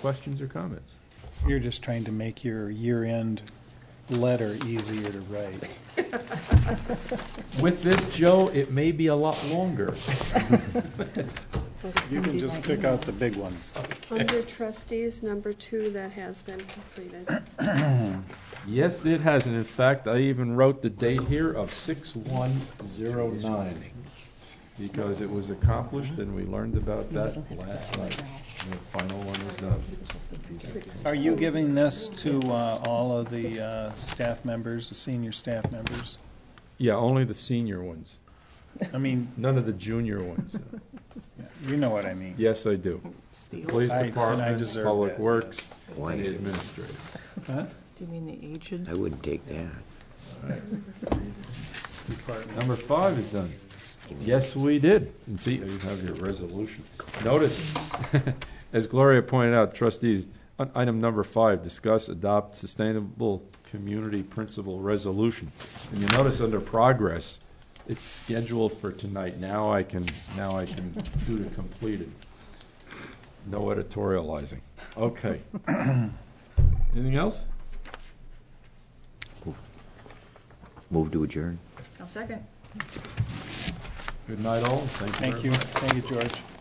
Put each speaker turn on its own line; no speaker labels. Questions or comments?
You're just trying to make your year-end letter easier to write.
With this, Joe, it may be a lot longer.
You can just pick out the big ones.
Under trustees, number two, that has been completed.
Yes, it has, and in fact, I even wrote the date here of six one zero nine, because it was accomplished and we learned about that last night. And The final one was done.
Are you giving this to uh, all of the uh, staff members, the senior staff members?
Yeah, only the senior ones,
I mean,
none of the junior ones.
you know what I mean.
Yes, I do. Police
I- and I
Department,
deserve
Public
that,
Works,
yes.
and the administrator.
Huh?
Do you mean the aged?
I wouldn't take that.
Number five is done. Yes, we did. And see, you have your resolution. Notice, as Gloria pointed out, trustees, on item number five, discuss, adopt sustainable community principle resolution. And you notice under progress, it's scheduled for tonight. Now I can, now I can do the completed. No editorializing. Okay. Anything else?
Move to adjourn.
I'll second.
Good night all. Thank you very
Thank you, thank you, George.